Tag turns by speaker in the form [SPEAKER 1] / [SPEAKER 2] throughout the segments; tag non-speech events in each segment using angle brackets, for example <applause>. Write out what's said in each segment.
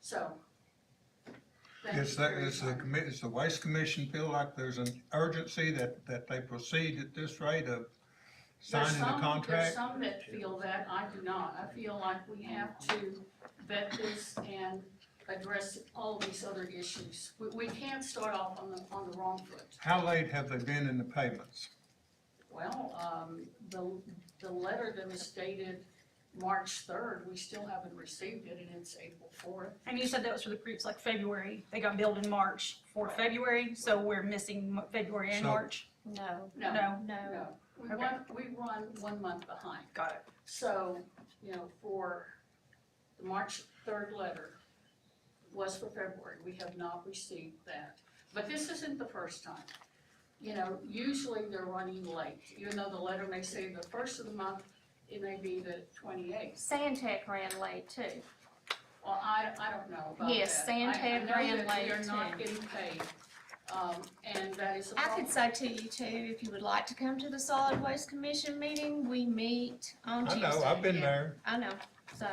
[SPEAKER 1] so. thank
[SPEAKER 2] It's
[SPEAKER 1] you
[SPEAKER 2] the,
[SPEAKER 1] for your
[SPEAKER 2] it's the
[SPEAKER 1] time.
[SPEAKER 2] commi, it's the Waste Commission feel like there's an urgency that, that they proceed at this rate
[SPEAKER 1] There's
[SPEAKER 2] of signing
[SPEAKER 1] some-
[SPEAKER 2] the
[SPEAKER 1] There's
[SPEAKER 2] contract?
[SPEAKER 1] some that feel that, I do not. I feel like we have to vet this and address all these other issues. We, we can't start off on the, on the wrong foot.
[SPEAKER 2] How late have they been in the payments?
[SPEAKER 1] Well, um, the, the letter that was dated March third, we still haven't received it, and it's April fourth.
[SPEAKER 3] And you said that was for the groups like February, they got billed in March for February, so we're missing Mo- February and
[SPEAKER 2] So-
[SPEAKER 3] March?
[SPEAKER 4] No,
[SPEAKER 1] No,
[SPEAKER 3] No,
[SPEAKER 4] no.
[SPEAKER 1] no, we
[SPEAKER 3] Okay.
[SPEAKER 1] run, we run one month behind.
[SPEAKER 3] got it.
[SPEAKER 1] So, you know, for the March third letter was for February, we have not received that. But this isn't the first time. You know, usually they're running late, even though the letter may say the first of the month, it may be the twenty-eighth.
[SPEAKER 4] Santec ran late too.
[SPEAKER 1] Well, I, I don't know about that.
[SPEAKER 4] Yes,
[SPEAKER 1] I-
[SPEAKER 4] Santec ran
[SPEAKER 1] I know that we are
[SPEAKER 4] late
[SPEAKER 1] not
[SPEAKER 4] too.
[SPEAKER 1] getting paid, um, and that is a
[SPEAKER 4] I
[SPEAKER 1] problem.
[SPEAKER 4] could say to you too, if you would like to come to the solid waste commission meeting, we meet on
[SPEAKER 2] I
[SPEAKER 4] Tuesday.
[SPEAKER 2] know, I've been
[SPEAKER 4] Yeah,
[SPEAKER 2] there.
[SPEAKER 4] I know, so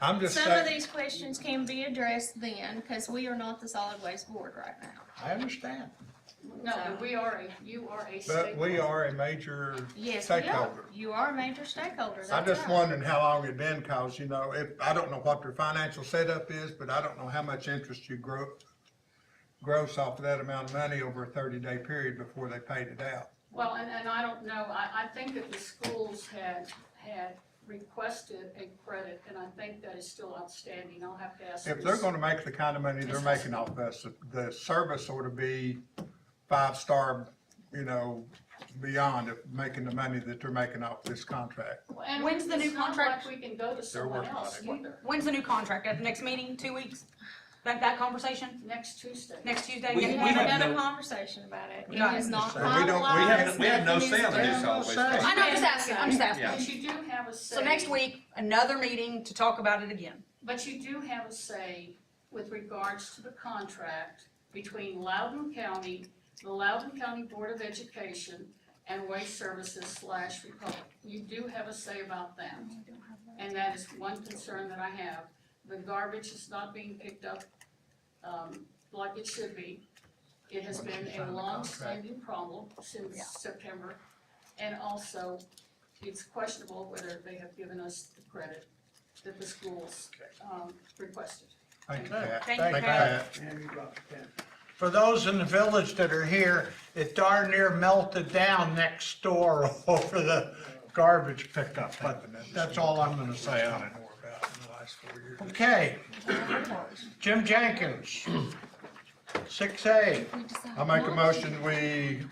[SPEAKER 2] I'm just
[SPEAKER 4] some of
[SPEAKER 2] saying,
[SPEAKER 4] these questions can be addressed then, because we are not the solid waste board right now.
[SPEAKER 2] I understand,
[SPEAKER 1] No, but we are a, you are a
[SPEAKER 2] but we
[SPEAKER 1] stakeholder.
[SPEAKER 2] are a major,
[SPEAKER 4] Yes, we are.
[SPEAKER 2] Stakeholder.
[SPEAKER 4] You are a major stakeholder,
[SPEAKER 2] I'm
[SPEAKER 4] that's
[SPEAKER 2] just
[SPEAKER 4] right.
[SPEAKER 2] wondering how long it been, cause you know, if, I don't know what their financial setup is, but I don't know how much interest you grow, gross off of that amount of money over a thirty-day period before they paid it out.
[SPEAKER 1] Well, and, and I don't know, I, I think that the schools had, had requested a credit, and I think that is still outstanding, I'll have to ask.
[SPEAKER 2] If they're
[SPEAKER 1] this.
[SPEAKER 2] gonna make the kind of money they're making off us, the service ought to be five-star, you know, beyond of making the money that they're making off this contract.
[SPEAKER 1] And
[SPEAKER 3] When's the new
[SPEAKER 1] it's not
[SPEAKER 3] contract?
[SPEAKER 1] like we can go to someone
[SPEAKER 2] working on
[SPEAKER 1] else
[SPEAKER 2] it.
[SPEAKER 1] either,
[SPEAKER 3] When's the new contract? At the next meeting, two weeks? That, that conversation,
[SPEAKER 1] next Tuesday.
[SPEAKER 3] next Tuesday?
[SPEAKER 5] We-
[SPEAKER 3] next
[SPEAKER 4] We
[SPEAKER 5] we
[SPEAKER 4] had
[SPEAKER 3] Monday?
[SPEAKER 5] have
[SPEAKER 4] another
[SPEAKER 5] no-
[SPEAKER 4] conversation about it.
[SPEAKER 3] We
[SPEAKER 4] It
[SPEAKER 3] got
[SPEAKER 4] is
[SPEAKER 3] it.
[SPEAKER 4] not
[SPEAKER 2] So we don't- we
[SPEAKER 4] finalized.
[SPEAKER 2] haven't-
[SPEAKER 5] We have no say on the new
[SPEAKER 2] Nothing is
[SPEAKER 5] solid waste.
[SPEAKER 2] done.
[SPEAKER 5] policy.
[SPEAKER 3] I know, I'm just asking, I'm just asking.
[SPEAKER 1] But you do have a say.
[SPEAKER 3] So next week, another meeting to talk about it again.
[SPEAKER 1] But you do have a say with regards to the contract between Loudoun County, the Loudoun County Board of Education, and Waste Services slash Republic. You do have a say about that. And that is one concern that I have. The garbage is not being picked up, um, like it should be. It has been a long-standing problem since
[SPEAKER 3] Yeah.
[SPEAKER 1] September. And also, it's questionable whether they have given us the credit that the schools, um, requested.
[SPEAKER 2] Thank you, Pat.
[SPEAKER 3] Thank you, Pat.
[SPEAKER 6] For those in the village that are here, it darn near melted down next door <laughs> over the garbage pickup, but that's all I'm gonna say on it. Okay. Jim Jenkins, six A.
[SPEAKER 4] We decided
[SPEAKER 2] I make a
[SPEAKER 4] not
[SPEAKER 2] motion, we,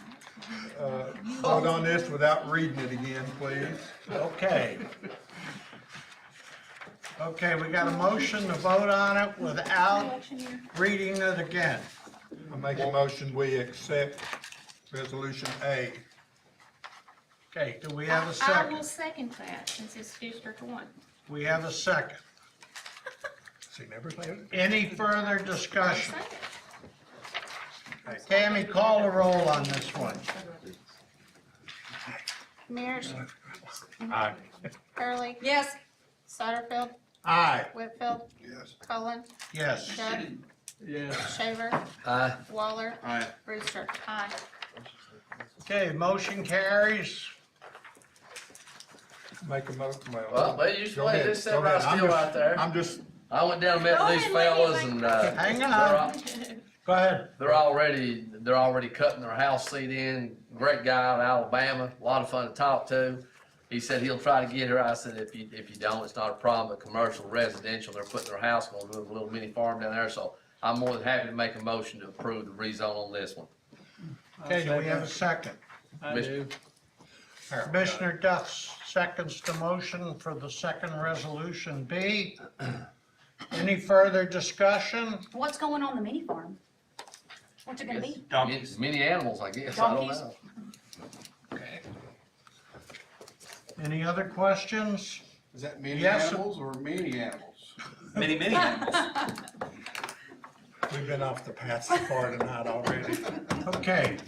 [SPEAKER 2] uh, vote on this without reading it again, please.
[SPEAKER 6] Okay. Okay, we got a motion to vote on it without reading it again.
[SPEAKER 2] I make a motion, we accept resolution A.
[SPEAKER 6] Okay, do we
[SPEAKER 4] to.
[SPEAKER 6] have a
[SPEAKER 4] I- I will
[SPEAKER 6] second?
[SPEAKER 4] second that, since it's District One.
[SPEAKER 6] We have a second.
[SPEAKER 2] See, never say it.
[SPEAKER 6] Any further discussion?
[SPEAKER 4] Second.
[SPEAKER 6] Tammy, call the roll on this one.
[SPEAKER 4] Mears,
[SPEAKER 6] Aye.
[SPEAKER 4] Hurley,
[SPEAKER 3] Yes,
[SPEAKER 4] Satterfield,
[SPEAKER 6] Aye,
[SPEAKER 4] Whitfield,
[SPEAKER 2] Yes.
[SPEAKER 4] Cullen,
[SPEAKER 6] yes.
[SPEAKER 4] Judd. Shaver. Waller.
[SPEAKER 5] Aye.
[SPEAKER 4] Brewster. Aye.
[SPEAKER 6] Okay, motion carries.
[SPEAKER 2] Make a motion,
[SPEAKER 5] Well,
[SPEAKER 2] well.
[SPEAKER 5] but you just
[SPEAKER 2] go
[SPEAKER 5] wait,
[SPEAKER 2] ahead,
[SPEAKER 5] just sit
[SPEAKER 2] go
[SPEAKER 5] right
[SPEAKER 2] ahead. I'm
[SPEAKER 5] still
[SPEAKER 2] just-
[SPEAKER 5] out there.
[SPEAKER 2] I'm just,
[SPEAKER 5] I went down and
[SPEAKER 4] Go
[SPEAKER 5] met
[SPEAKER 4] ahead,
[SPEAKER 5] these
[SPEAKER 4] lady,
[SPEAKER 5] fellas
[SPEAKER 4] like-
[SPEAKER 5] and, uh,
[SPEAKER 6] Hang
[SPEAKER 5] they're,
[SPEAKER 6] on,
[SPEAKER 5] al-
[SPEAKER 4] <laughs>
[SPEAKER 6] go ahead.
[SPEAKER 5] they're already, they're already cutting their house seat in. Great guy out of Alabama, a lot of fun to talk to. He said he'll try to get her. I said, if you, if you don't, it's not a problem. But commercial, residential, they're putting their house, gonna do a little mini farm down there. So I'm more than happy to make a motion to approve the rezone on this one.
[SPEAKER 6] Okay, do we have a second?
[SPEAKER 5] Mr.
[SPEAKER 6] Commissioner Duff seconds the motion for the second resolution B. Any further discussion?
[SPEAKER 7] What's going on the mini farm? What's it gonna be?
[SPEAKER 5] Many- Many animals, I guess. I don't
[SPEAKER 7] Donkeys.
[SPEAKER 5] know.
[SPEAKER 6] Any other questions?
[SPEAKER 8] Is that many
[SPEAKER 6] Yes.
[SPEAKER 8] animals or many animals?
[SPEAKER 5] Many,
[SPEAKER 3] <laughs>
[SPEAKER 5] many animals.
[SPEAKER 7] <laughs>
[SPEAKER 2] we've been off the path so far tonight already.
[SPEAKER 6] Okay.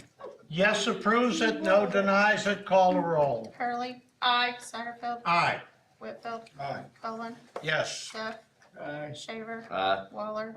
[SPEAKER 6] Yes approves it, no denies it, call the roll.
[SPEAKER 4] Hurley. Aye. Satterfield,
[SPEAKER 6] Aye,
[SPEAKER 4] Whitfield,
[SPEAKER 2] Aye.
[SPEAKER 4] Cullen,
[SPEAKER 6] yes.
[SPEAKER 4] Duff. Shaver.
[SPEAKER 5] Uh,
[SPEAKER 4] Waller.